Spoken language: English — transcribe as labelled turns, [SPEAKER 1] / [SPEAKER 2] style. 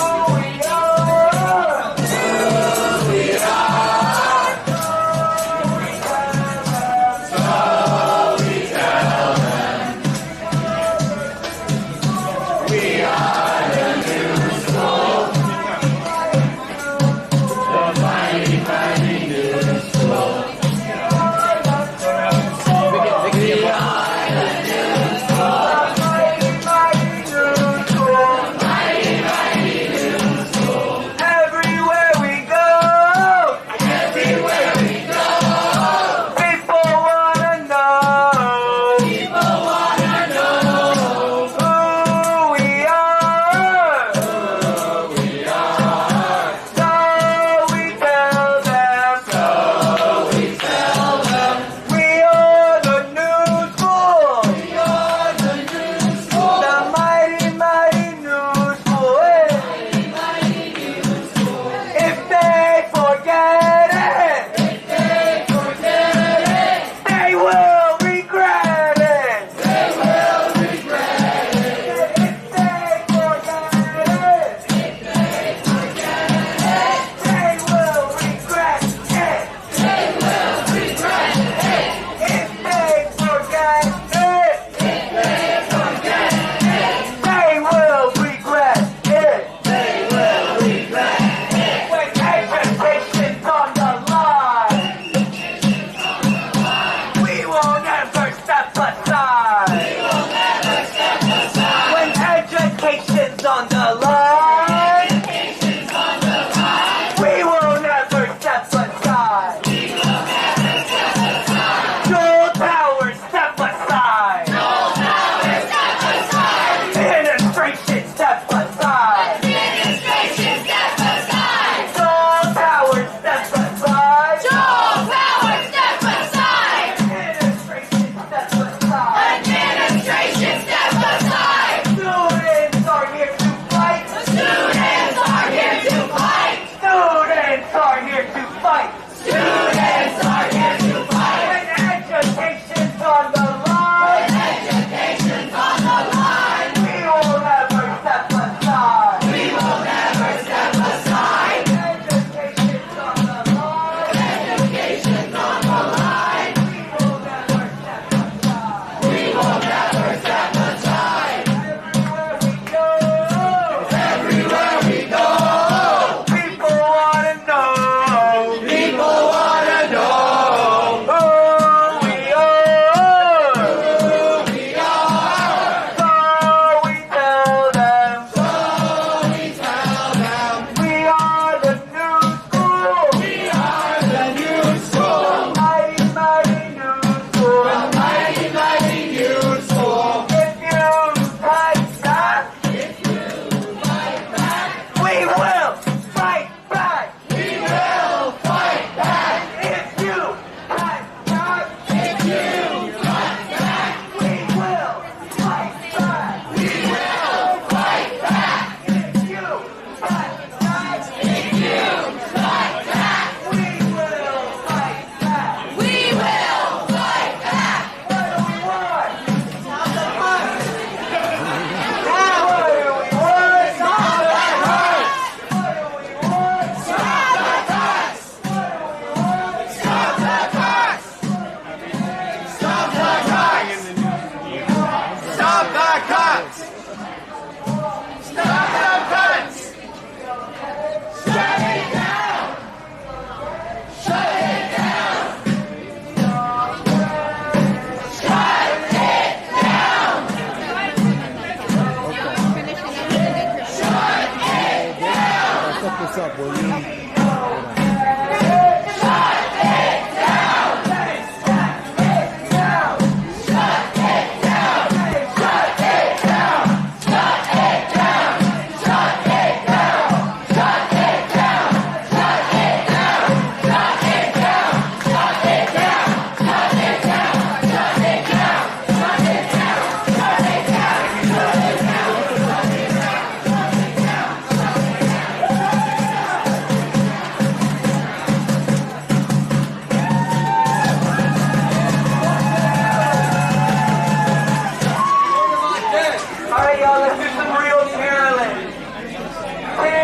[SPEAKER 1] We will fight back. We will fight back. If you fight back, if you fight back, we will fight back. We will fight back. If you fight back, if you fight back, we will fight back. We will fight back. What do we want? What do we want? What do we want?
[SPEAKER 2] Stop the cuts! Stop the cuts!
[SPEAKER 3] Fuck this up, will you? Hold on.